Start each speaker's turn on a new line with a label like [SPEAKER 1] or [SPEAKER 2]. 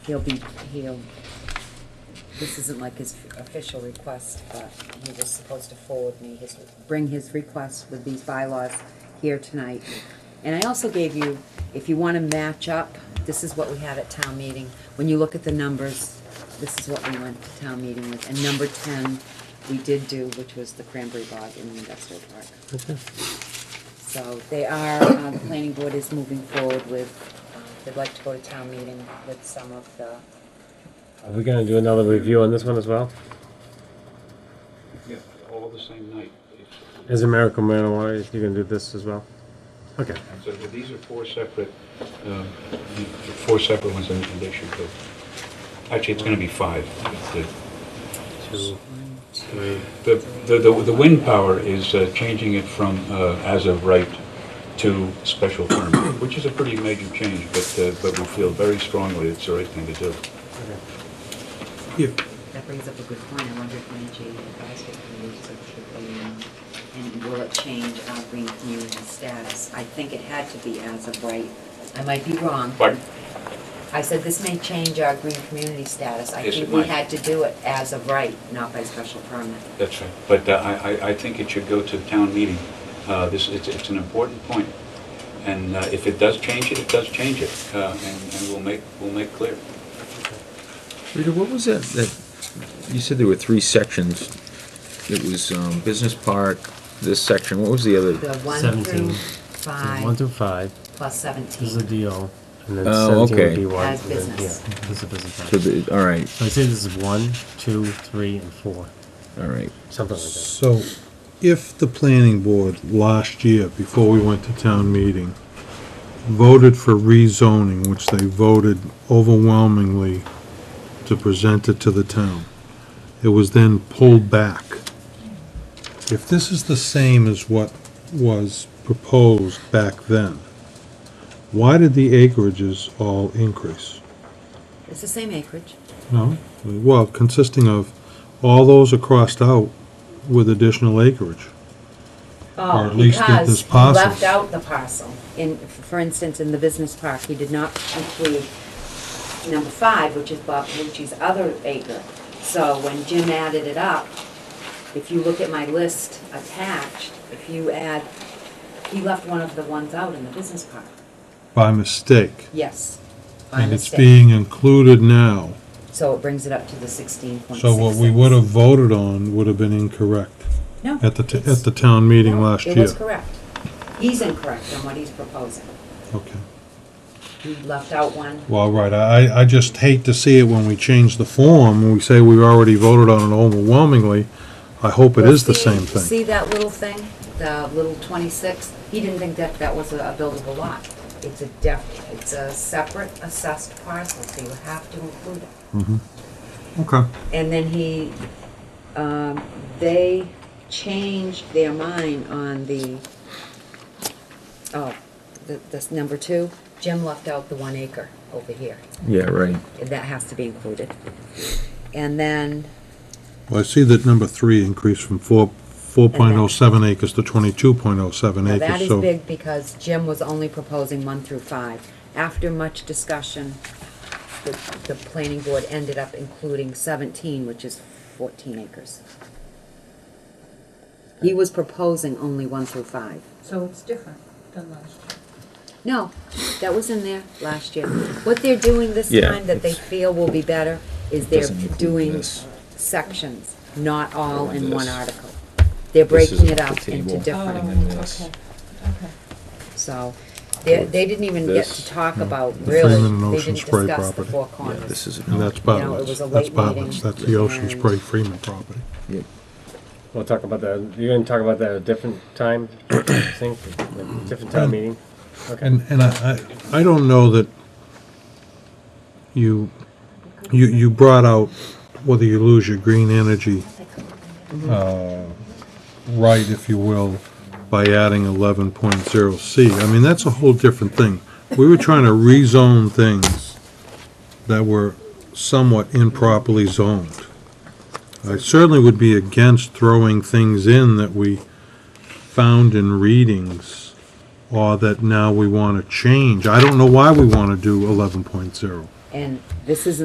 [SPEAKER 1] He'll be, he'll, this isn't like his official request, but he was supposed to forward me his, bring his request with these bylaws here tonight. And I also gave you, if you want to match up, this is what we had at town meeting. When you look at the numbers, this is what we went to town meeting with. And number ten, we did do, which was the cranberry bog in the industrial park. So they are, uh, the planning board is moving forward with, uh, they'd like to go to town meeting with some of the,
[SPEAKER 2] Are we gonna do another review on this one as well?
[SPEAKER 3] Yeah, all the same night. It's-
[SPEAKER 2] Is American marijuana, is you gonna do this as well? Okay,
[SPEAKER 3] and So these are four separate, um, four separate ones, and they should go. Actually, it's going to be five. The-
[SPEAKER 2] two, three,
[SPEAKER 3] The, the, the the wind power is uh, changing it from uh, as of right to special permit, which is a pretty major change, but, uh, but we feel very strongly it's the right thing to do.
[SPEAKER 1] that brings up a good point, I wonder if NHA advisory committee so should they, um, and will it change our green community status? I think it had to be as of right, I might be wrong.
[SPEAKER 3] Pardon?
[SPEAKER 1] I said this may change our green community status, I
[SPEAKER 3] Yes,
[SPEAKER 1] think
[SPEAKER 3] it
[SPEAKER 1] we
[SPEAKER 3] might.
[SPEAKER 1] had to do it as of right, not by special permit.
[SPEAKER 3] That's right. But uh, I, I- I think it should go to town meeting. Uh, This, it's, it's an important point. And uh, if it does change it, it does change it, Uh, and, and we'll make, we'll make clear.
[SPEAKER 4] Rita, what was that, that, you said there were three sections. It was, um, Business Park, this section, what was the
[SPEAKER 1] The
[SPEAKER 4] other?
[SPEAKER 1] one through
[SPEAKER 2] Seventeen. one
[SPEAKER 1] five
[SPEAKER 2] through five,
[SPEAKER 1] plus
[SPEAKER 2] this is a
[SPEAKER 1] seventeen,
[SPEAKER 2] DO, and then
[SPEAKER 4] Oh,
[SPEAKER 2] seventeen would
[SPEAKER 4] okay.
[SPEAKER 2] be one.
[SPEAKER 1] As
[SPEAKER 2] and then-
[SPEAKER 1] business.
[SPEAKER 2] yeah, This is business.
[SPEAKER 4] So
[SPEAKER 2] plan.
[SPEAKER 4] the, all right,
[SPEAKER 2] So I say this is one, two, three, and four,
[SPEAKER 4] all right.
[SPEAKER 2] something like that.
[SPEAKER 5] So, if the planning board last year, before we went to town meeting, voted for rezoning, which they voted overwhelmingly to present it to the town, it was then pulled back. If this is the same as what was proposed back then, why did the acreages all increase?
[SPEAKER 1] it's the same acreage.
[SPEAKER 5] No, well, consisting of, all those are crossed out with additional acreage.
[SPEAKER 1] Oh,
[SPEAKER 5] Or at least get
[SPEAKER 1] because
[SPEAKER 5] this
[SPEAKER 1] he
[SPEAKER 5] parcel.
[SPEAKER 1] Left out the parcel. In, for instance, in the business park, he did not include number five, which is Bob Palucci's other acre. So when Jim added it up, if you look at my list attached, if you add, he left one of the ones out in the business park.
[SPEAKER 5] by mistake.
[SPEAKER 1] Yes. by
[SPEAKER 5] And it's
[SPEAKER 1] mistake.
[SPEAKER 5] being included now.
[SPEAKER 1] So it brings it up to the sixteen point six.
[SPEAKER 5] So what we would have voted on would have been incorrect
[SPEAKER 1] No.
[SPEAKER 5] at the, t-
[SPEAKER 1] it's-
[SPEAKER 5] at the town meeting
[SPEAKER 1] no,
[SPEAKER 5] last
[SPEAKER 1] It
[SPEAKER 5] year.
[SPEAKER 1] was correct. He's incorrect on what he's proposing.
[SPEAKER 5] Okay.
[SPEAKER 1] He left out one.
[SPEAKER 5] Well, right, I, I just hate to see it when we change the form, when we say we already voted on it overwhelmingly. I hope it
[SPEAKER 1] Well,
[SPEAKER 5] is the
[SPEAKER 1] see-
[SPEAKER 5] same thing.
[SPEAKER 1] See that little thing, the little 26? He didn't think that that was a a buildable lot. It's a def, it's a separate assessed parcel, so you have to include it.
[SPEAKER 5] Okay.
[SPEAKER 1] And then he, um, they changed their mind on the, oh, the, this number two. Jim left out the one acre over here.
[SPEAKER 4] Yeah, right.
[SPEAKER 1] That has to be included. And then,
[SPEAKER 5] Well, I see that number three increased from four, four point oh seven acres to twenty-two point oh seven
[SPEAKER 1] Now,
[SPEAKER 5] acres, so.
[SPEAKER 1] that is big because Jim was only proposing one through five. After much discussion, the, the planning board ended up including seventeen, which is fourteen acres. He was proposing only one through five.
[SPEAKER 6] So it's different than last year.
[SPEAKER 1] No, that was in there last year. What they're doing this
[SPEAKER 4] Yeah,
[SPEAKER 1] time that they
[SPEAKER 4] it's-
[SPEAKER 1] feel will be better is they're
[SPEAKER 4] Doesn't include
[SPEAKER 1] doing
[SPEAKER 4] this.
[SPEAKER 1] sections, not all in one
[SPEAKER 4] This.
[SPEAKER 1] article. They're
[SPEAKER 4] This is
[SPEAKER 1] breaking it
[SPEAKER 4] the
[SPEAKER 1] up into
[SPEAKER 4] table.
[SPEAKER 1] different.
[SPEAKER 4] Oh, than this.
[SPEAKER 6] Okay, okay.
[SPEAKER 1] So, they, they didn't even get to
[SPEAKER 4] This.
[SPEAKER 1] talk about,
[SPEAKER 5] Freeman and
[SPEAKER 1] really, they
[SPEAKER 5] Ocean
[SPEAKER 1] didn't
[SPEAKER 5] Spray
[SPEAKER 1] discuss the
[SPEAKER 5] property.
[SPEAKER 1] four
[SPEAKER 4] Yeah,
[SPEAKER 1] corners.
[SPEAKER 4] this is.
[SPEAKER 1] You
[SPEAKER 5] And that's
[SPEAKER 1] know, it was
[SPEAKER 5] Bartlett's,
[SPEAKER 1] a
[SPEAKER 5] that's
[SPEAKER 1] late meeting,
[SPEAKER 5] Bartlett's, that's the Ocean
[SPEAKER 1] and-
[SPEAKER 5] Spray Freeman property.
[SPEAKER 4] Yep.
[SPEAKER 2] We'll talk about that, you're gonna talk about that at a different time, I think, different time meeting? Okay,
[SPEAKER 5] And, and I, I I don't know that you, you, you brought out whether you lose your green energy, uh, right, if you will, by adding eleven point zero C. I mean, that's a whole different thing. We were trying to rezone things that were somewhat improperly zoned. I certainly would be against throwing things in that we found in readings or that now we want to change. I don't know why we want to do eleven point zero.
[SPEAKER 1] And this is